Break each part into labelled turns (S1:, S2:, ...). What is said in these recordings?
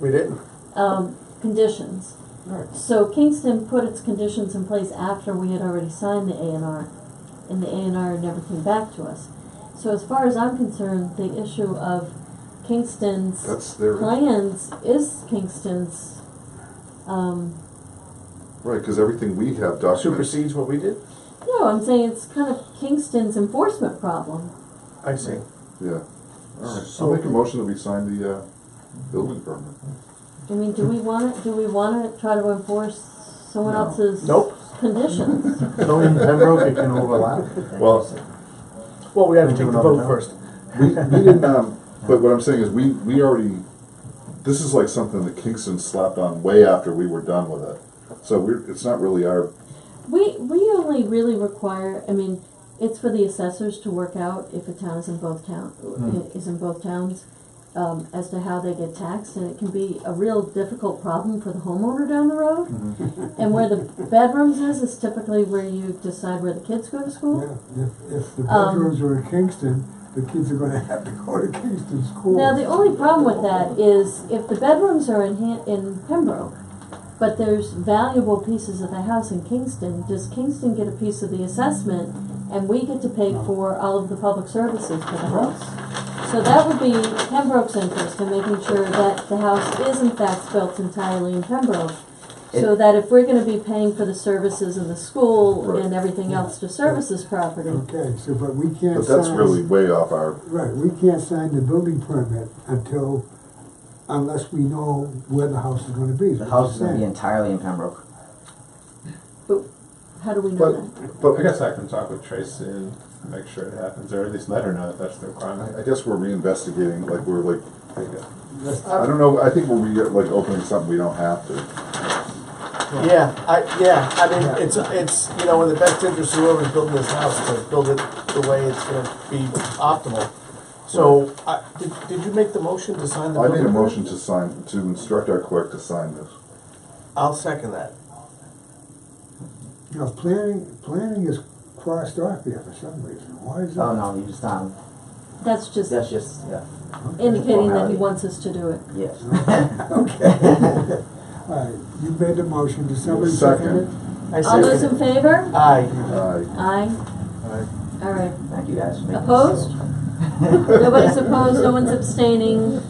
S1: We didn't.
S2: um, conditions.
S1: Alright.
S2: So Kingston put its conditions in place after we had already signed the A and R, and the A and R never came back to us. So as far as I'm concerned, the issue of Kingston's
S3: That's their, right,
S2: plans is Kingston's, um,
S3: because everything we have documented,
S1: Supersedes what we did?
S2: no, I'm saying it's kind of Kingston's enforcement problem.
S1: I see.
S3: yeah. All right, I'll
S1: So-
S3: make a motion that we sign the, uh, building permit.
S2: I mean, do we wanna, do we wanna try to enforce someone
S3: No.
S2: else's
S1: Nope.
S2: conditions?
S4: So in Pembroke, it can overlap.
S3: Well,
S1: Well, we have to
S4: We'll do
S1: take the
S4: another
S1: vote
S4: time.
S1: first.
S3: we, we didn't, um, but what I'm saying is, we, we already, this is like something that Kingston slapped on way after we were done with it. So we're, it's not really our,
S2: We, we only really require, I mean, it's for the assessors to work out if a town is in both town, is in both towns, um, as to how they get taxed, and it can be a real difficult problem for the homeowner down the road. And where the bedrooms is, is typically where you decide where the kids go to
S5: Yeah,
S2: school.
S5: if, if the
S2: Um,
S5: bedrooms are in Kingston, the kids are gonna have to go to Kingston school.
S2: Now, the only problem with that is if the bedrooms are in Han- in Pembroke, but there's valuable pieces of the house in Kingston, does Kingston get a piece of the assessment and we get to pay for all of the public services for the house? So that would be Pembroke's interest in making sure that the house is in fact built entirely in Pembroke. So that if we're gonna be paying for the services in the school and
S3: Right.
S2: everything else to service this property,
S5: Okay, so, but we can't
S3: but
S5: sign.
S3: that's really way off our,
S5: Right, we can't sign the building permit until, unless we know where the house is gonna be.
S6: The house is gonna be entirely in Pembroke.
S2: how do we know that?
S3: but, but
S7: I guess I can talk with Tracy and make sure it happens, or at least let her know that that's the
S3: I, I
S7: requirement.
S3: guess we're reinvestigating, like, we're like,
S5: That's-
S3: I don't know, I think we're re- like opening something we don't have to.
S1: Yeah, I, yeah, I mean, it's, it's, you know, in the best interest of whoever's building this house to build it the way it's gonna be optimal. So, I, did, did you make the motion to sign the?
S3: I made a
S1: building permit?
S3: motion to sign, to instruct our clerk to sign this.
S1: I'll second that.
S5: Now, planning, planning is crossed off here for some reason, why is that?
S6: Oh, no, you just, um,
S2: That's just
S6: that's just, yeah,
S2: indicating that he
S6: Formality.
S2: wants us to do it.
S6: yes.
S5: All right, you made the motion, did somebody
S3: Second.
S5: second it?
S1: I
S2: All those
S1: second
S2: in
S1: it.
S2: favor?
S1: Aye.
S3: Aye.
S2: Aye. All right.
S6: Thank you guys. for making this
S2: Opposed?
S6: so-
S2: Nobody's opposed, no one's abstaining.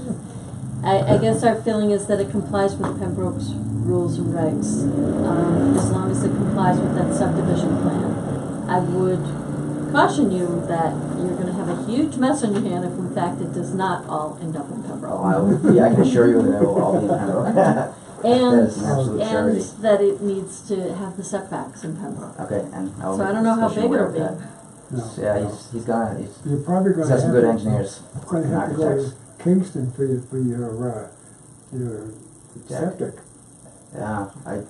S2: I, I guess our feeling is that it complies with Pembroke's rules and regs, um, as long as it complies with that subdivision plan. I would caution you that you're gonna have a huge mess on your hand if in fact it does not all end up in
S6: Oh,
S2: Pembroke.
S6: I will, yeah, I can assure you that it will all be in Pembroke. That
S2: And,
S6: is an absolute
S2: and
S6: surety.
S2: that it needs to have the setbacks in Pembroke.
S6: Okay, and I will.
S2: So I
S6: make
S2: don't know how
S6: Tricia
S2: big
S6: aware
S2: it'll
S6: of
S2: be.
S6: that.
S5: No,
S6: Yeah,
S5: no.
S6: he's, he's gonna, he's,
S5: You're probably gonna
S6: he's
S5: have.
S6: got some good
S5: to-
S6: engineers
S5: Gonna
S6: and
S5: have to go
S6: architects.
S5: to Kingston for your, for your, uh, your
S6: Deck.
S5: septic.
S6: Yeah, I, again,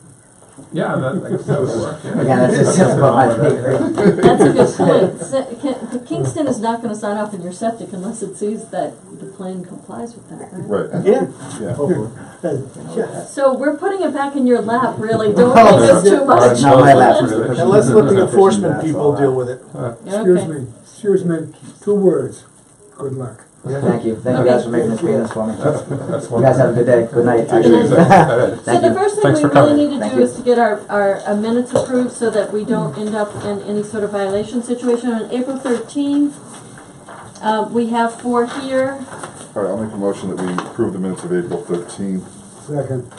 S7: Yeah, that, I guess that would work, yeah.
S6: that's just just about my pay grade.
S2: That's a good point. Se- Ki- Kingston is not gonna sign off on your septic unless it sees that the plan complies with that, right?
S3: Right,
S1: Yeah,
S3: yeah.
S2: So we're putting it back in your lap, really. Don't make this too much.
S6: Not my last one.
S1: and let's let the enforcement people deal with it.
S5: Excuse
S2: Okay.
S5: me, excuse me, two words, good luck.
S6: Thank you, thank you guys for making this meeting for me.
S7: That's
S6: You guys have a good day, good night.
S7: Actually, is that-
S2: So
S6: Thank
S2: the
S6: you.
S2: first thing
S7: Thanks
S2: we
S7: for
S2: really
S7: coming.
S2: need to
S6: Thank
S2: do
S6: you.
S2: is to get our, our uh, minutes approved so that we don't end up in any sort of violation situation. On April thirteenth, uh, we have four here.
S3: All right, I'll make a motion that we approve the minutes of April thirteenth.
S5: Second.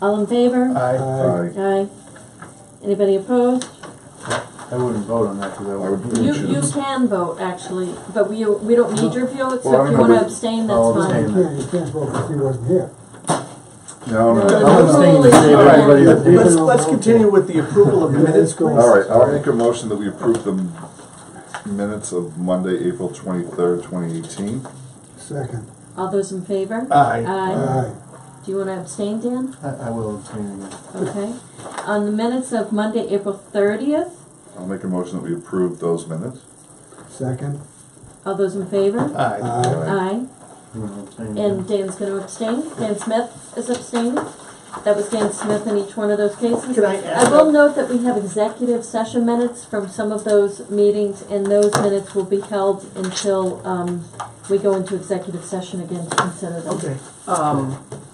S2: All in favor?
S7: Aye.
S3: I,
S2: Aye. Anybody opposed?
S4: I wouldn't vote on that because I
S3: I would
S4: would.
S2: You,
S3: move
S2: you
S3: to.
S2: can vote, actually, but we, we don't need your view,
S3: Well, I
S2: except if you
S3: don't
S2: wanna
S3: know.
S2: abstain,
S4: I'll
S2: that's
S5: You
S2: fine.
S4: abstain.
S5: can't, you can't vote because he wasn't here.
S3: No, no,
S2: No,
S3: no.
S2: no. everybody
S1: Let's, let's continue with the approval of the minutes, please.
S3: All right, I'll make a motion that we approve the m- minutes of Monday, April twenty-third, twenty eighteen.
S5: Second.
S2: All those in favor?
S1: Aye.
S2: Aye.
S5: Aye.
S2: Do you wanna abstain, Dan?
S4: I I will abstain again.
S2: Okay. On the minutes of Monday, April thirtieth,
S3: I'll make a motion that we approve those minutes.
S5: Second.
S2: all those in favor?
S1: Aye.
S5: Aye.
S2: Aye.
S4: You wanna abstain again?
S2: And Dan's gonna abstain. Dan Smith is abstaining. That was Dan Smith in each one of those cases.
S1: Can I add
S2: I will note that we have executive session minutes from some of those meetings, and those minutes will be held until, um, we go into executive session again to consider them.
S1: Okay, um,